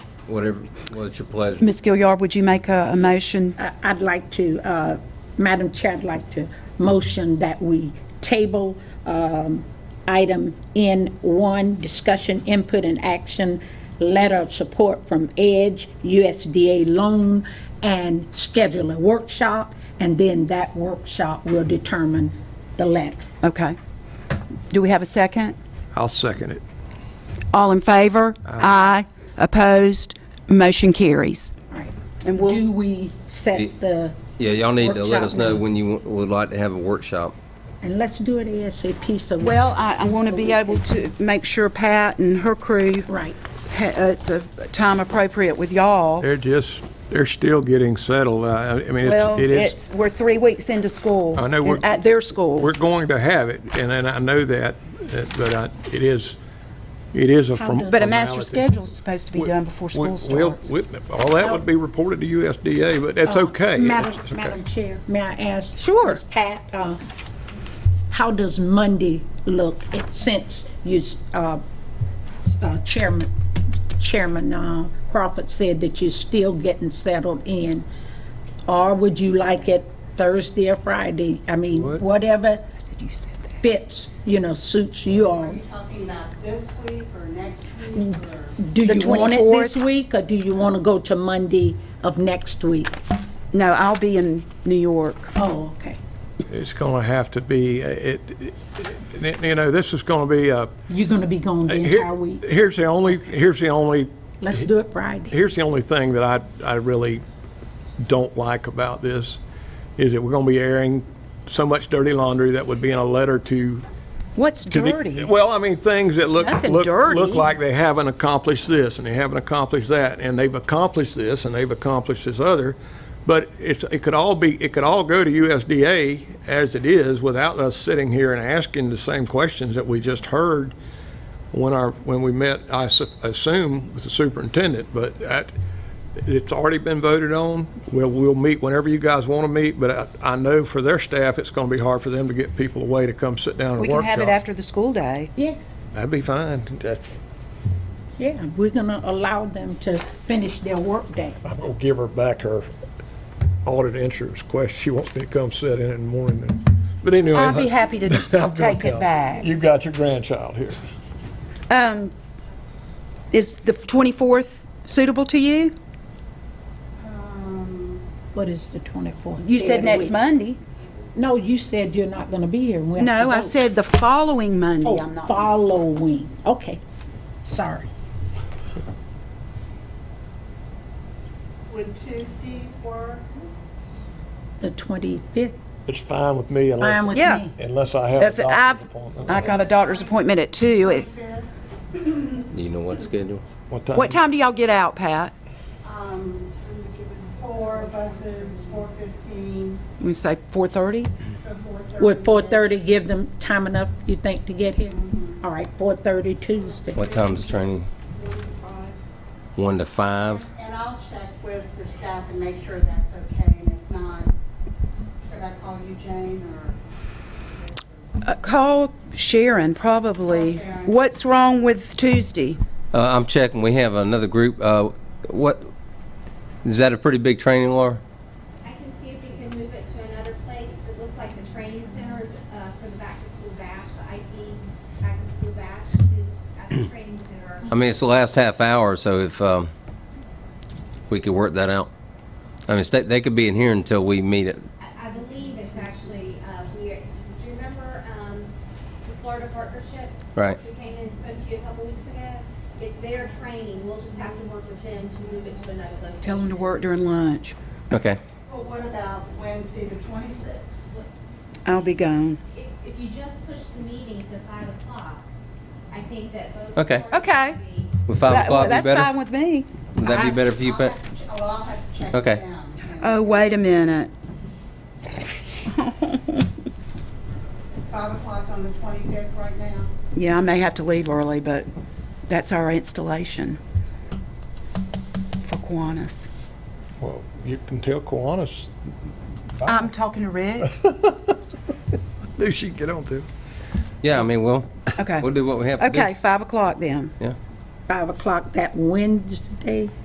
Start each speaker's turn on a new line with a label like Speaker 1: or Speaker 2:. Speaker 1: Whatever, what's your pleasure?
Speaker 2: Ms. Gilliard, would you make a, a motion?
Speaker 3: I- I'd like to, uh, Madam Chair, I'd like to motion that we table um, item N1, discussion, input, and action, letter of support from EDGE, USDA loan, and schedule a workshop, and then that workshop will determine the letter.
Speaker 2: Okay. Do we have a second?
Speaker 4: I'll second it.
Speaker 2: All in favor? Aye. Opposed? Motion carries. And we'll,
Speaker 3: Do we set the?
Speaker 1: Yeah, y'all need to let us
Speaker 3: workshop
Speaker 1: know
Speaker 3: now?
Speaker 1: when you wa- would like to have a workshop.
Speaker 3: And let's do it ASAP, so. we-
Speaker 2: well, I, I want to be able to make sure Pat and her crew.
Speaker 3: Right.
Speaker 2: ha- uh, It's a time appropriate with y'all.
Speaker 4: They're just, they're still getting settled. Uh, I I mean,
Speaker 2: Well,
Speaker 4: it's- it is,
Speaker 2: it's, we're three weeks into school.
Speaker 4: I know we're-
Speaker 2: At their school.
Speaker 4: we're going to have it, and then I know that, uh, but I- it is, it is a form-
Speaker 2: But a master
Speaker 4: formality.
Speaker 2: schedule's supposed to be done before
Speaker 4: We-
Speaker 2: school
Speaker 4: we'll-
Speaker 2: starts.
Speaker 4: we- All that would be reported to USDA, but that's okay. It's- it's
Speaker 3: Oh, Madam,
Speaker 4: okay.
Speaker 3: Madam Chair, may I ask?
Speaker 2: Sure.
Speaker 3: Ms. Pat, uh, how does Monday look It- since you, s- uh, s- uh, Chairman, Chairman uh, Crawford said that you're still getting settled in? Or would you like it Thursday or Friday? I mean, whatever fits, you know, suits you all.
Speaker 5: talking about this week or next week or?
Speaker 3: Do
Speaker 2: The
Speaker 3: you want it
Speaker 2: 24th?
Speaker 3: this week, or do you want to go to Monday of next week?
Speaker 2: No, I'll be in New York.
Speaker 3: Oh, okay.
Speaker 4: It's going to have to be, uh, it, it- you know, this is going to be a.
Speaker 3: You're going to be gone the
Speaker 4: Uh, here-
Speaker 3: entire week?
Speaker 4: Here's the only, here's the only
Speaker 3: Let's do it Friday.
Speaker 4: here's the only thing that I, I really don't like about this, is that we're gonna be airing so much dirty laundry that would be in a letter to.
Speaker 2: What's
Speaker 4: to the-
Speaker 2: dirty?
Speaker 4: Well, I mean, things that look,
Speaker 2: Nothing
Speaker 4: look,
Speaker 2: dirty.
Speaker 4: look like they haven't accomplished this, and they haven't accomplished that, and they've accomplished this, and they've accomplished this other. But it's, it could all be, it could all go to USDA as it is, without us sitting here and asking the same questions that we just heard when our, when we met, I su- assume, with the superintendent, but that, it's already been voted on. We'll, we'll meet whenever you guys want to meet, but I, I know for their staff, it's going to be hard for them to get people away to come sit down and
Speaker 2: We
Speaker 4: workshop.
Speaker 2: can have it after the school day.
Speaker 3: Yeah,
Speaker 4: That'd be fine. That's-
Speaker 3: yeah, we're gonna allow them to finish their workday.
Speaker 4: I'm going to give her back her audit insurance question. She wants me to come sit in in the morning. and- But anyway.
Speaker 2: I'll be happy to
Speaker 4: I'm gonna
Speaker 2: take it
Speaker 4: come.
Speaker 2: back.
Speaker 4: You've got your grandchild here.
Speaker 2: Um, is the 24th suitable to you?
Speaker 3: What is the 24th?
Speaker 2: You said next
Speaker 3: month.
Speaker 2: Monday.
Speaker 3: No, you said you're not gonna be here. We have to
Speaker 2: No, I
Speaker 3: vote.
Speaker 2: said the following Monday. I'm
Speaker 3: Oh,
Speaker 2: not.
Speaker 3: following, okay, sorry.
Speaker 5: Would Tuesday work?
Speaker 3: The 25th,
Speaker 4: It's fine with me
Speaker 3: fine with
Speaker 4: unless,
Speaker 2: Yeah.
Speaker 3: me.
Speaker 4: unless I have
Speaker 2: If
Speaker 4: a doctor's
Speaker 2: I've,
Speaker 4: appointment.
Speaker 2: I got a doctor's appointment at two. It-
Speaker 1: Do you know what schedule?
Speaker 2: What
Speaker 1: Um,
Speaker 2: time do y'all get out, Pat?
Speaker 5: Um, four buses, four fifteen
Speaker 2: We say 4:30?
Speaker 5: to four thirty.
Speaker 3: Would 4:30 give them time enough, you think, to get here? All right, 4:30 Tuesday.
Speaker 1: What time's training? One to five?
Speaker 5: And I'll check with the staff and make sure that's okay, and if not, should I call you Jane or?
Speaker 2: Uh, Call Sharon, probably. What's wrong with Tuesday?
Speaker 1: Uh, I'm checking, we have another group, uh, what, is that a pretty big training, Laura?
Speaker 6: I can see if we can move it to another place. It looks like the training center is, uh, for the back-to-school bash, the IT back-to-school bash is at the training center.
Speaker 1: I mean, it's the last half hour, so if, um, we could work that out. I mean, they, they could be in here until we meet it.
Speaker 6: I, I believe it's actually, uh, we, do you remember, um, the Florida Partnership?
Speaker 1: Right.
Speaker 6: We came in and spoke to you a couple weeks ago. It's their training. We'll just have to work with them to move it to another location.
Speaker 2: Tell them to work during lunch.
Speaker 1: Okay.
Speaker 5: Well, what about Wednesday, the twenty-sixth?
Speaker 2: I'll be gone.
Speaker 6: If, if you just push the meeting to five o'clock, I think that both.
Speaker 1: Okay.
Speaker 6: parties
Speaker 2: Okay.
Speaker 6: would be-
Speaker 1: Would five
Speaker 2: That-
Speaker 1: o'clock be
Speaker 2: That's fine
Speaker 1: better?
Speaker 2: with me.
Speaker 1: Would that be better for you,
Speaker 5: I'll
Speaker 1: Pat?
Speaker 5: have to ch- Oh, I'll have to check with
Speaker 1: Okay.
Speaker 5: them.
Speaker 2: Oh, wait a minute.
Speaker 5: Five o'clock on the twenty-fifth right now?
Speaker 2: Yeah, I may have to leave early, but that's our installation for Kiwanis.
Speaker 4: Well, you can tell Kiwanis,
Speaker 2: I'm talking to Rick.
Speaker 4: who she can get on to.
Speaker 1: Yeah, I mean, we'll,
Speaker 2: Okay.
Speaker 1: we'll do what we have to do.
Speaker 2: Okay, 5 o'clock then.
Speaker 1: Yeah.
Speaker 3: 5 o'clock that Wednesday.